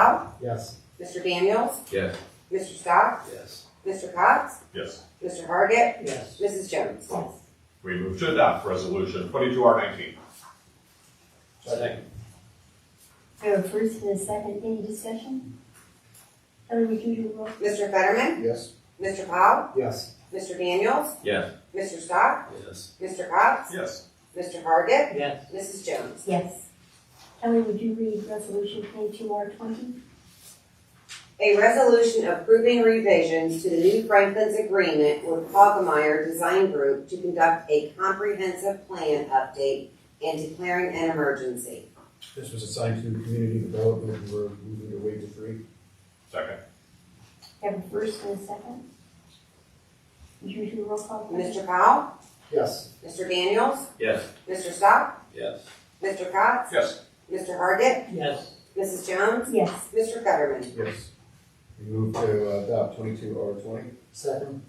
Powell, Yes. Mr. Daniels, Yes. Mr. Scott, Yes. Mr. Cox, Yes. Mr. Hargit, Yes. Mrs. Jones. Oh. We move to adopt resolution twenty-two R nineteen. Second. I have a first and a second, any discussion? Heather, would you do a roll? Mr. Fetterman, Yes. Mr. Powell, Yes. Mr. Daniels, Yes. Mr. Scott, Yes. Mr. Cox, Yes. Mr. Hargit, Yes. Mrs. Jones. Yes. Kelly, would you read resolution twenty-two R twenty? A resolution approving revisions to the New Franklin's agreement with Hogemeyer Design Group to conduct a comprehensive plan update and declaring an emergency. This was assigned to community development, and we're moving to waiver three. Second. I have a first and a second. Would you do a roll call? please? Mr. Powell, Yes. Mr. Daniels, Yes. Mr. Stock, Yes. Mr. Cox, Yes. Mr. Hargit, Yes. Mrs. Jones, Yes. Mr. Fetterman. Yes. We move to uh, adopt twenty-two R twenty. Second.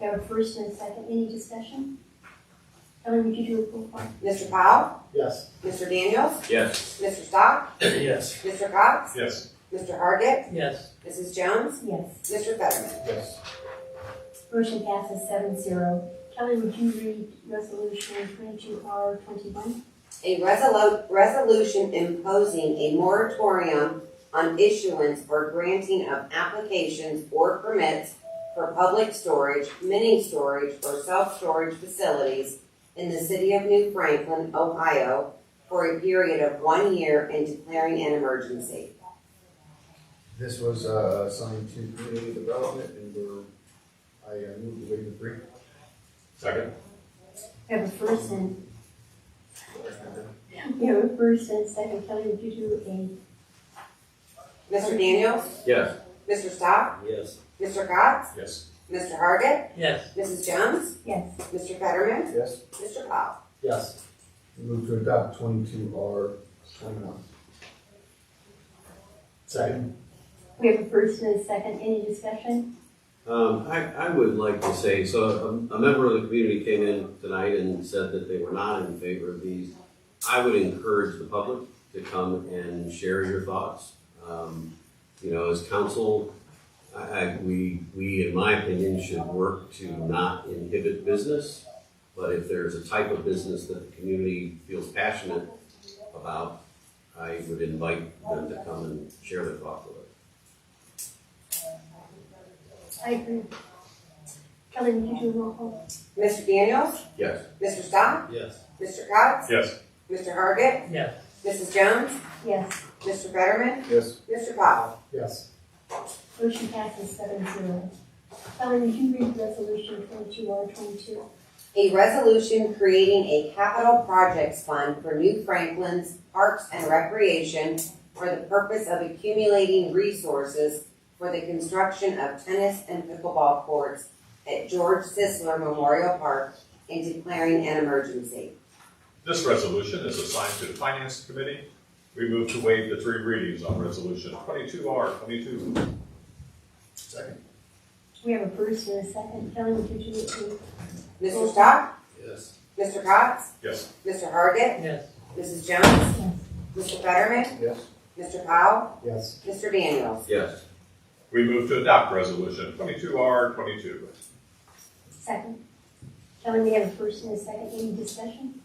I have a first and a second, any discussion? Heather, would you do a roll call? Mr. Powell, Yes. Mr. Daniels, Yes. Mr. Stock, Yes. Mr. Cox, Yes. Mr. Hargit, Yes. Mrs. Jones, Yes. Mr. Fetterman. Yes. Motion passes seven zero. Kelly, would you read resolution twenty-two R twenty-one? A resolu- resolution imposing a moratorium on issuance or granting of applications or permits for public storage, mini storage, or self-storage facilities in the city of New Franklin, Ohio, for a period of one year and declaring an emergency. This was uh, assigned to community development, and we're, I uh, move to waiver three. Second. I have a first and, I have a first and a second. Kelly, would you do a, Mr. Daniels? Yes. Mr. Stock? Yes. Mr. Cox? Yes. Mr. Hargit? Yes. Mrs. Jones? yes? Mr. Fetterman? Yes. Mr. Powell? Yes. We move to adopt twenty-two R twenty-one. Second. We have a first and a second, any discussion? Um, I, I would like to say, so a, a member of the community came in tonight and said that they were not in favor of these. I would encourage the public to come and share your thoughts. Um, you know, as council, I, I, we, we, in my opinion, should work to not inhibit business. But if there's a type of business that the community feels passionate about, I would invite them to come and share their thoughts with us. I agree. Kelly, would you do a roll call? Mr. Daniels? Yes. Mr. Stock? Yes. Mr. Cox? Yes. Mr. Hargit? Yes. Mrs. Jones? Yes, Mr. Fetterman? Yes. Mr. Powell? Yes. motion passes seven zero. Kelly, would you read resolution twenty-two R twenty-two? A resolution creating a capital projects fund for New Franklin's Parks and Recreation for the purpose of accumulating resources for the construction of tennis and pickleball courts at George Sisler Memorial Park and declaring an emergency. This resolution is assigned to the finance committee. We move to waive the three readings on resolution twenty-two R twenty-two. Second. We have a first and a second, Kelly, would you do Mr. Stock? Yes. Mr. Cox? Yes. Mr. Hargit? Yes. Mrs. a? Jones? Yes. Mr. Fetterman? Yes. Mr. Powell? Yes. Mr. Daniels? Yes. We move to adopt resolution twenty-two R twenty-two. Second. Kelly, we have a first and a second, any discussion?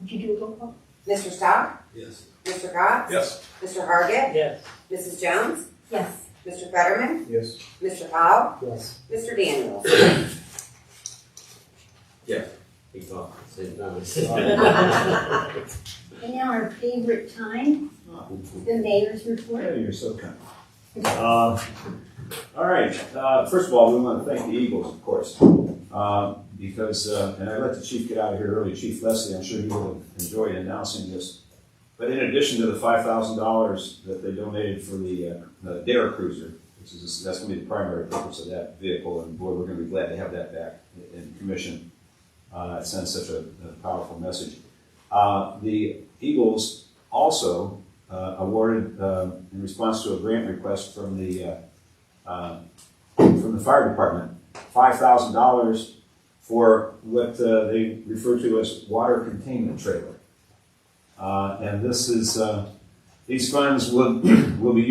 Would you do a roll call? Mr. Stock? Yes. Mr. Cox? Yes. Mr. Hargit? Yes. Mrs. Jones? Yes, Mr. Fetterman? Yes. Mr. Powell? Yes. Mr. Daniels? He thought at the same time. and now our favorite time, the mayor's report. Hey, you're so kind. Uh, All right, uh, first of all, we want to thank the Eagles, of course, uh, because, uh, and I let the chief get out of here early, Chief Leslie, I'm sure he will enjoy announcing this. But in addition to the five thousand dollars that they donated for the, uh, the Dare Cruiser, which is, that's gonna be the primary purpose of that vehicle, and boy, we're gonna be glad to have that back in commission. Uh, it sends such a a powerful message. Uh, the Eagles also uh, awarded uh, in response to a grant request from the uh, uh, from the fire department, five thousand dollars for what uh, they refer to as water containment trailer. Uh, and this is uh, these funds will will be